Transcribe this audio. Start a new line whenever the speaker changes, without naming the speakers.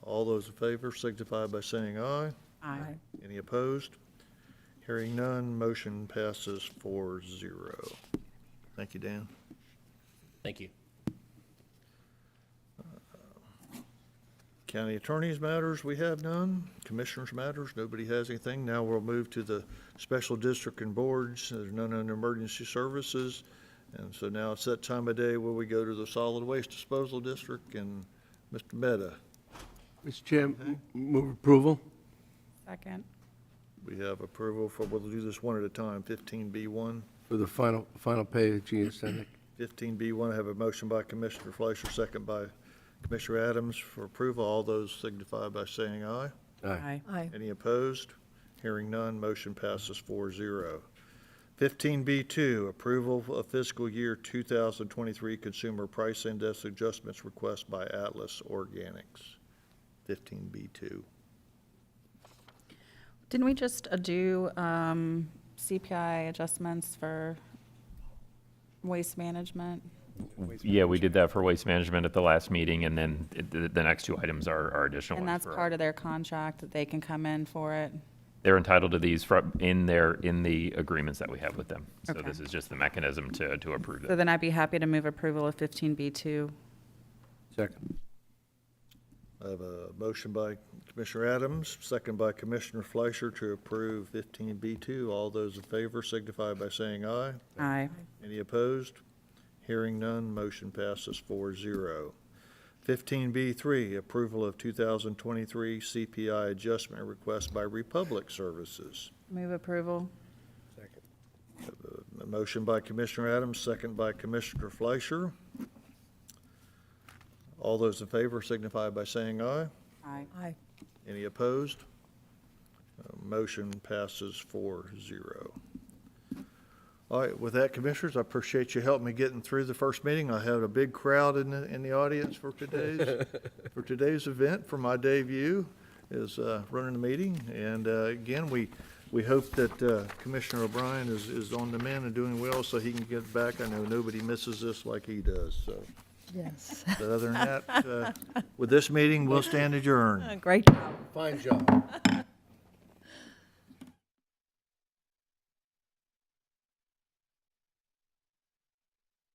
All those in favor signify by saying aye.
Aye.
Any opposed? Hearing none, motion passes 4-0. Thank you, Dan.
Thank you.
County Attorney's Matters, we have none. Commissioners' Matters, nobody has anything. Now we'll move to the Special District and Boards. There's none under Emergency Services. And so now it's that time of day where we go to the Solid Waste Disposal District and Mr. Meta.
Mr. Chair, m- move approval.
Second.
We have approval for, we'll do this one at a time, 15B1.
For the final, final page, Ian Stenick.
15B1, I have a motion by Commissioner Fleischer, second by Commissioner Adams for approval. All those signify by saying aye.
Aye.
Aye.
Any opposed? Hearing none, motion passes 4-0. zero. Fifteen B two, approval of fiscal year two thousand twenty-three consumer price index adjustments request by Atlas Organics. Fifteen B two.
Didn't we just uh, do um, CPI adjustments for waste management?
Yeah, we did that for waste management at the last meeting, and then it- the, the next two items are, are additional
And
ones.
that's
for-
part of their contract, that they can come in for it?
They're entitled to these from, in their, in the agreements that we have with them. So
Okay.
this is just the mechanism to, to approve
So
them.
then I'd be happy to move approval of 15B2.
Second.
I have a motion by Commissioner Adams, second by Commissioner Fleischer to approve fifteen B two. All those in favor signify by saying aye.
Aye.
Any opposed? Hearing none, motion passes 4-0. Fifteen B three, approval of two thousand twenty-three CPI adjustment request by Republic Services.
Move approval.
A motion by Commissioner Adams, second by Commissioner Fleischer. All those in favor signify by saying aye.
Aye.
Any opposed? Uh, Motion passes 4-0. All right, with that, Commissioners, I appreciate you helping me getting through the first meeting. I had a big crowd in the, in the audience for today's, for today's event, for my debut as uh, running the meeting. And uh, again, we, we hope that uh, Commissioner O'Brien is, is on the mend and doing well so he can get back. I know nobody misses this like he does, so.
Yes.
But other than that, uh, with this meeting, we'll stand adjourned.
Great job.
Fine job.